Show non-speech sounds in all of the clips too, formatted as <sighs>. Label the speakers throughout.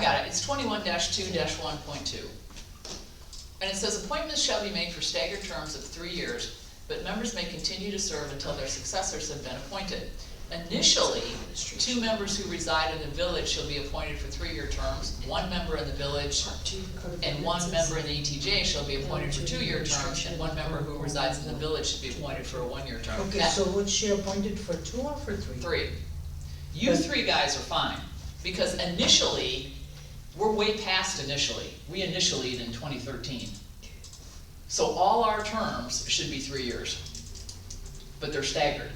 Speaker 1: got it, it's twenty-one two one point two. And it says appointments shall be made for staggered terms of three years, but members may continue to serve until their successors have been appointed. Initially, two members who reside in the village shall be appointed for three-year terms, one member in the village and one member in the ETJ shall be appointed for two-year terms, and one member who resides in the village should be appointed for a one-year term.
Speaker 2: Okay,
Speaker 1: That-
Speaker 2: so was she appointed for two or for three?
Speaker 1: Three. You three guys are fine, because initially, we're way past initially. We initially in twenty thirteen. So all our terms should be three years, but they're staggered.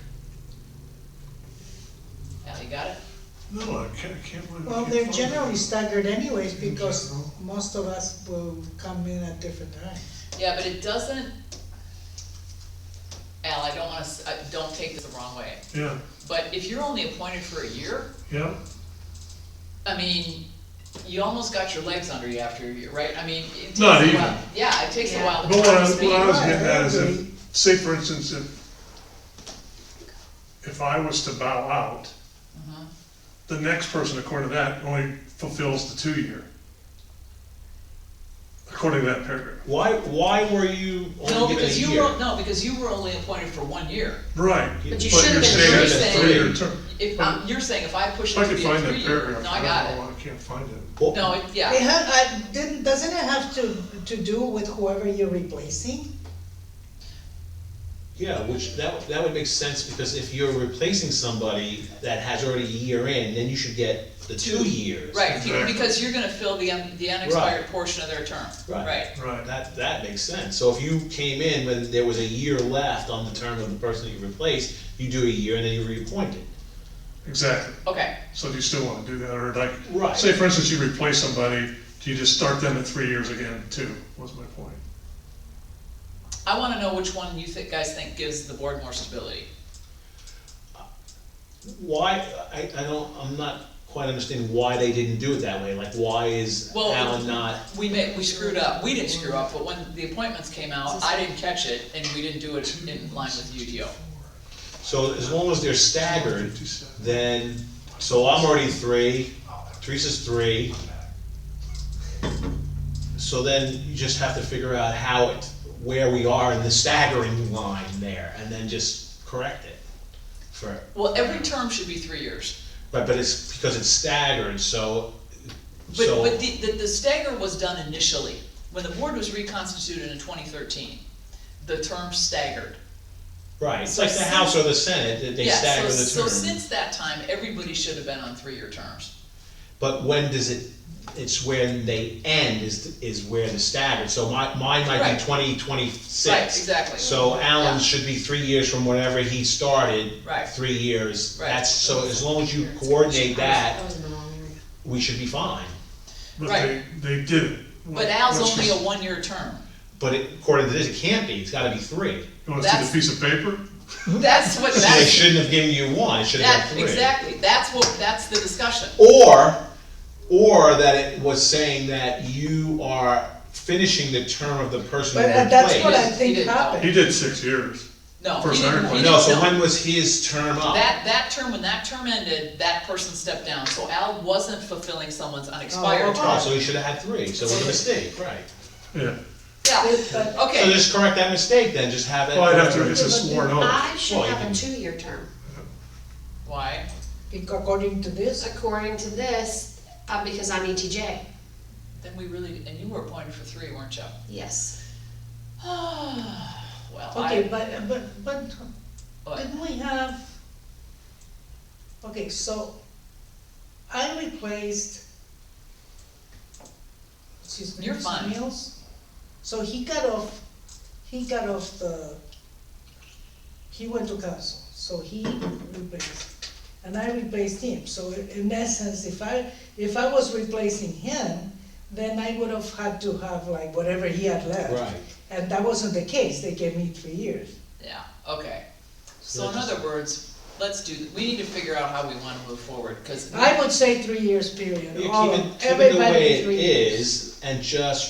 Speaker 1: Al, you got it?
Speaker 3: No, I can't, can't believe. I
Speaker 2: Well,
Speaker 3: can't
Speaker 2: they're
Speaker 3: find
Speaker 2: generally
Speaker 3: it.
Speaker 2: staggered anyways, because
Speaker 3: general.
Speaker 2: most of us will come in at different times.
Speaker 1: Yeah, but it doesn't, Al, I don't wanna, s- I- don't take this the wrong way,
Speaker 3: Yeah,
Speaker 1: but if you're only appointed for a year,
Speaker 3: yeah,
Speaker 1: I mean, you almost got your legs under you after a year, right? I mean, it takes a
Speaker 3: Not even.
Speaker 1: while. Yeah, it takes a
Speaker 4: Yeah.
Speaker 1: while
Speaker 3: but
Speaker 1: to
Speaker 3: what
Speaker 1: learn
Speaker 3: I,
Speaker 1: to
Speaker 3: what I
Speaker 1: speak.
Speaker 3: was getting at is
Speaker 2: Right, I agree.
Speaker 3: if, say for instance, if, if I was to bow out,
Speaker 1: Mhm.
Speaker 3: the next person according to that only fulfills the two-year. According to that paragraph.
Speaker 5: Why, why were you
Speaker 1: No,
Speaker 5: only given a
Speaker 1: because you
Speaker 5: year?
Speaker 1: were, no, because you were only appointed for one year.
Speaker 3: Right.
Speaker 5: But
Speaker 4: you
Speaker 3: you're
Speaker 4: should've been
Speaker 3: saying
Speaker 1: doing
Speaker 3: it's a
Speaker 1: something.
Speaker 3: three-year term.
Speaker 1: If, um,
Speaker 3: But-
Speaker 1: you're saying if I push
Speaker 3: If
Speaker 1: it
Speaker 3: I
Speaker 1: to
Speaker 3: could
Speaker 1: be a
Speaker 3: find that
Speaker 1: three-year,
Speaker 3: paragraph,
Speaker 1: no, I
Speaker 3: I don't
Speaker 1: got
Speaker 3: know, I can't find it.
Speaker 5: Well,
Speaker 1: it. No, it-
Speaker 2: It
Speaker 1: yeah,
Speaker 2: ha uh, didn't, doesn't it have to, to do with whoever you're replacing?
Speaker 5: Yeah, which, that, that would make sense, because if you're replacing somebody that has already a year in, then you should get the two years.
Speaker 1: right,
Speaker 3: Exactly.
Speaker 1: because you're gonna fill the, un- the unexpired portion of their term,
Speaker 5: Right.
Speaker 1: right?
Speaker 3: Right.
Speaker 5: That, that makes sense, so if you came in when there was a year left on the term of the person that you replaced, you do a year and then you're reappointed.
Speaker 3: Exactly.
Speaker 1: Okay,
Speaker 3: So do you still wanna do that, or like,
Speaker 5: Right.
Speaker 3: say for instance, you replace somebody, do you just start them at three years again, too, was my point.
Speaker 1: I wanna know which one you thi- guys think gives the board more stability.
Speaker 5: Why, I, I don't, I'm not quite understanding why they didn't do it that way, like, why is
Speaker 1: Well,
Speaker 5: Alan not?
Speaker 1: We made, we screwed up, we didn't screw up, but when the appointments came out, I didn't catch it, and we didn't do it in line with UDO.
Speaker 5: So as long as they're staggered,
Speaker 3: 57.
Speaker 5: then, so I'm already three, Teresa's three. So then you just have to figure out how it, where we are in the staggering line there, and then just correct it for,
Speaker 1: Well, every term should be three years.
Speaker 5: but, but it's because it's staggered, so,
Speaker 1: But,
Speaker 5: so.
Speaker 1: but the, the, the stagger was done initially, when the board was reconstituted in twenty thirteen, the term staggered.
Speaker 5: Right, it's like the House or the Senate, that they
Speaker 1: Yeah, so-
Speaker 5: stagger
Speaker 1: So
Speaker 5: the term.
Speaker 1: since that time, everybody should have been on three-year terms.
Speaker 5: But when does it, it's when they end is, is where the staggered, so my, mine might
Speaker 1: Right.
Speaker 5: be twenty twenty-six.
Speaker 1: Right, exactly.
Speaker 5: So
Speaker 1: Yeah.
Speaker 5: Allen should be three years from whenever he started.
Speaker 1: Right.
Speaker 5: Three years,
Speaker 1: Right.
Speaker 5: that's, so as long as you coordinate that, we should be fine.
Speaker 3: But they,
Speaker 1: Right.
Speaker 3: they did it.
Speaker 1: But Al's only a one-year term.
Speaker 5: But it- according to this, it can't be, it's gotta be three.
Speaker 3: You wanna see
Speaker 1: That's-
Speaker 3: the piece of paper?
Speaker 1: That's what,
Speaker 5: So they
Speaker 1: that's,
Speaker 5: shouldn't have given you one, it should have
Speaker 1: that,
Speaker 5: been three.
Speaker 1: exactly, that's what, that's the discussion.
Speaker 5: Or, or that it was saying that you are finishing the term of the person you
Speaker 2: But uh, that's what I
Speaker 5: replaced.
Speaker 2: think
Speaker 1: He didn't know.
Speaker 2: happened.
Speaker 3: He did six years.
Speaker 1: No, he
Speaker 3: First
Speaker 1: didn't,
Speaker 3: iron
Speaker 1: he
Speaker 3: point.
Speaker 5: No,
Speaker 1: didn't-
Speaker 5: so
Speaker 1: no.
Speaker 5: when was his term up?
Speaker 1: That, that term, when that term ended, that person stepped down, so Al wasn't fulfilling someone's unexpired
Speaker 2: okay.
Speaker 5: Oh,
Speaker 1: term.
Speaker 5: so he should have had three, so it was a mistake, right.
Speaker 3: Yeah.
Speaker 1: Yeah,
Speaker 5: So
Speaker 1: okay,
Speaker 5: just correct that mistake then, just have it.
Speaker 3: Well, I'd have to, it's a sworn oath.
Speaker 4: I should
Speaker 5: Well, you
Speaker 4: have
Speaker 5: can-
Speaker 4: a two-year term.
Speaker 1: why?
Speaker 2: Bec- According to this,
Speaker 4: According to this, uh, because I'm ETJ,
Speaker 1: Then we really, and you were appointed for three, weren't you? <sighs>
Speaker 4: yes.
Speaker 1: Well,
Speaker 2: okay,
Speaker 1: I,
Speaker 2: but, but, but
Speaker 1: but,
Speaker 2: Didn't we have? Okay, so I replaced. what's his name,
Speaker 1: You're fine.
Speaker 2: Samuels. So he got off, he got off the, he went to council, so he replaced. And I replaced him, so i- in essence, if I, if I was replacing him, then I would have had to have like whatever he had left.
Speaker 5: Right.
Speaker 2: And that wasn't the case, they gave me three years.
Speaker 1: yeah, okay. So
Speaker 5: So
Speaker 1: in
Speaker 5: just-
Speaker 1: other words, let's do, we need to figure out how we wanna move forward, cause.
Speaker 2: I would say three years period,
Speaker 5: You
Speaker 2: all
Speaker 5: keep
Speaker 2: of-
Speaker 5: it, keep it the
Speaker 2: everybody
Speaker 5: way it
Speaker 2: three years.
Speaker 5: is, and just